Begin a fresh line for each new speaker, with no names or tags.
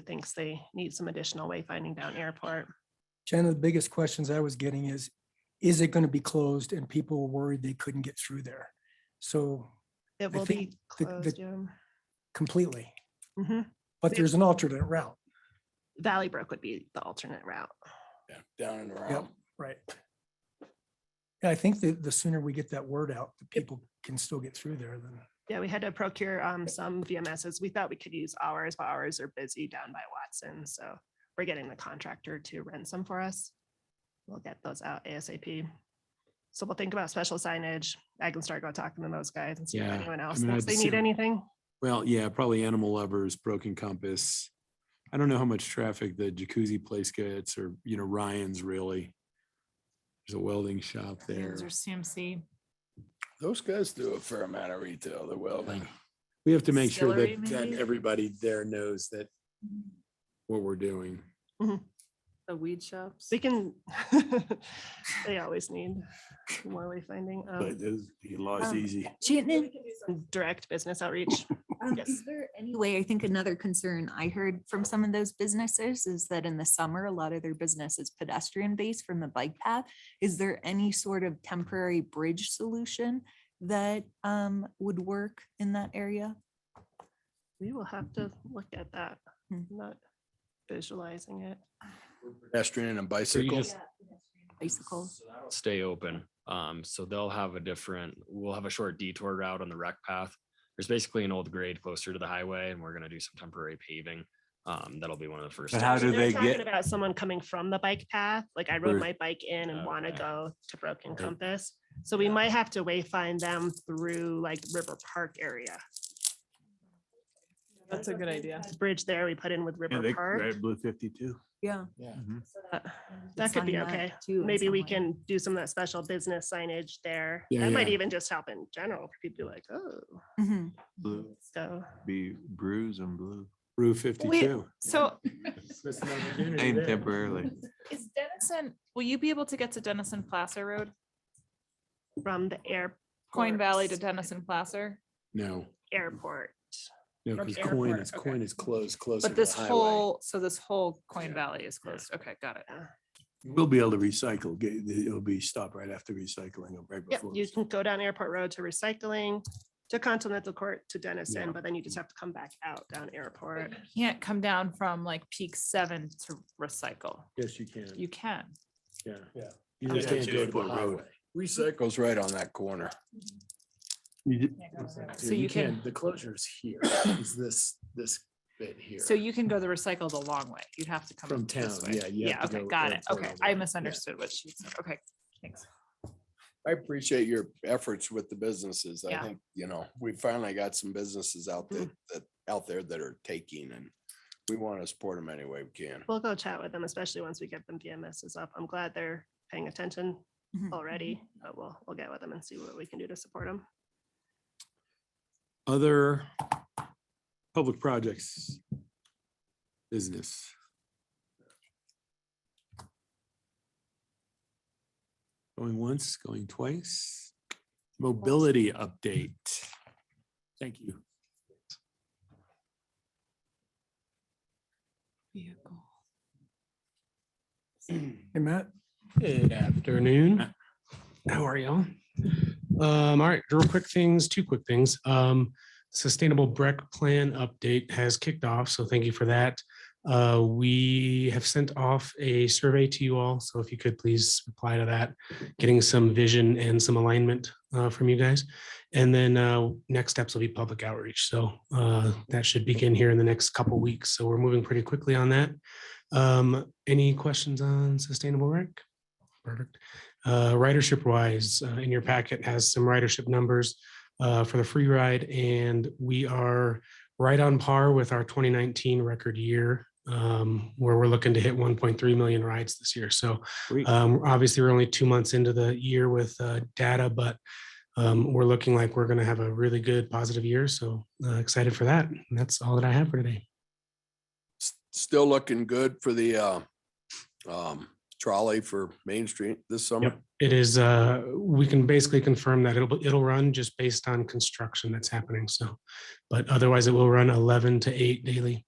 thinks they need some additional wayfinding down airport.
Jenna, the biggest questions I was getting is, is it going to be closed? And people were worried they couldn't get through there. So
It will
think
be
the- the-
closed, yeah.
completely,
Mhm.
but there's an alternate route,
Valley Brook would be the alternate route.
Yeah, Down and around.
right? Yeah, I think that the sooner we get that word out, the people can still get through there then.
Yeah, we had to procure um some VMSs. We thought we could use ours, but ours are busy down by Watson, so we're getting the contractor to rent some for us. We'll get those out ASAP. So we'll think about special signage. I can start go talking to those guys and see if
Yeah,
anyone else
mean,
thinks
I'd
they need
assume-
anything.
Well, yeah, probably Animal Lovers, Broken Compass. I don't know how much traffic the jacuzzi place gets or, you know, Ryan's really. There's a welding shop there.
Those are CMC.
Those guys do a fair amount of retail, they're welding.
We have to make sure that,
Distillery,
that
maybe?
everybody there knows that what we're doing.
The weed shops.
They can, they always need more wayfinding. um,
But those- he lost
Um,
easy.
Chittenden,
and Direct business outreach.
um,
Yes.
is there any way, I think another concern I heard from some of those businesses is that in the summer, a lot of their business is pedestrian based from the bike path. Is there any sort of temporary bridge solution that um would work in that area?
We will have to look at that,
Hmm.
not visualizing it.
Pedestrian and bicycle.
just-
Bicycle,
stay open. Um, so they'll have a different, we'll have a short detour route on the rec path. There's basically an old grade closer to the highway and we're gonna do some temporary paving. Um, that'll be one of the first.
But how
steps.
do
They're
they
talking
get-
About someone coming from the bike path, like I rode
Where- Oh,
my bike in and want to
Okay.
go to Broken
Okay.
Compass. So we might have to wayfind them through like River Park area.
That's a good idea.
The Bridge there we put in with River Park.
Blue fifty-two.
yeah.
Uh, That could be
Sign that
okay.
too in
Maybe we
some way.
can do some of that special business signage there.
Yeah,
That might
yeah.
even just help in general for people to be like, oh,
Mhm.
so.
be bruised and blue.
Rue fifty-two.
So
And temporarily.
is Dennison, will you be able to get to Dennison Placer Road,
From the air.
Coin Valley to
ports,
Dennison Placer?
No,
Airport.
no,
From
because coin
airport,
is,
okay.
coin is closed, close.
But this whole, so this whole Coin Valley is closed. Okay, got it.
We'll be able to recycle, get, it'll be stopped right after recycling, or right
Yep,
before.
you can go down Airport Road to recycling, to Continental Court, to Dennison,
Yeah.
but then you just have to come back out down Airport.
You Can't come down from like peak seven to recycle.
Yes, you can.
You can.
Yeah.
Yeah.
You just
Yeah, to
can't go to the
Airport Road.
highway.
Recycle's right on that corner.
So you can,
the closure's here, is this, this bit here.
so you can go the recycle the long way. You'd have to come.
From
up this
town,
way.
yeah, you have
Yeah,
to
okay,
go
got it.
airport
Okay,
all the way.
I
Yeah.
misunderstood what she said. Okay, thanks.
I appreciate your efforts with the businesses. I
Yeah.
think, you know, we finally got some businesses out there, that, out there that are taking and we want to support them any way we can.
We'll go chat with them, especially once we get them VMSs up. I'm glad they're paying attention
Mm-hmm.
Mhm.
already, but we'll, we'll get with them and see what we can do to support them.
Other public projects. Business. Going once, going twice. Mobility update. Thank you.
Hey, Matt?
Good afternoon. How are y'all? Um, all right, real quick things, two quick things. Um, Sustainable Breck Plan update has kicked off, so thank you for that. Uh, we have sent off a survey to you all, so if you could please reply to that, getting some vision and some alignment uh, from you guys. And then uh, next steps will be public outreach, so uh, that should begin here in the next couple weeks. So we're moving pretty quickly on that. Um, any questions on Sustainable Rec? Perfect. Uh, ridership wise, uh, in your packet has some ridership numbers uh, for the free ride, and we are right on par with our 2019 record year, um, where we're looking to hit 1.3 million rides this year. So
Great.
um, obviously, we're only two months into the year with uh, data, but um, we're looking like we're going to have a really good, positive year. So uh, excited for that. And that's all that I have for today.
s- still looking good for the uh um trolley for Main Street this summer.
Yep, It is, uh, we can basically confirm that it'll, it'll run just based on construction that's happening, so. But otherwise, it will run eleven to eight daily.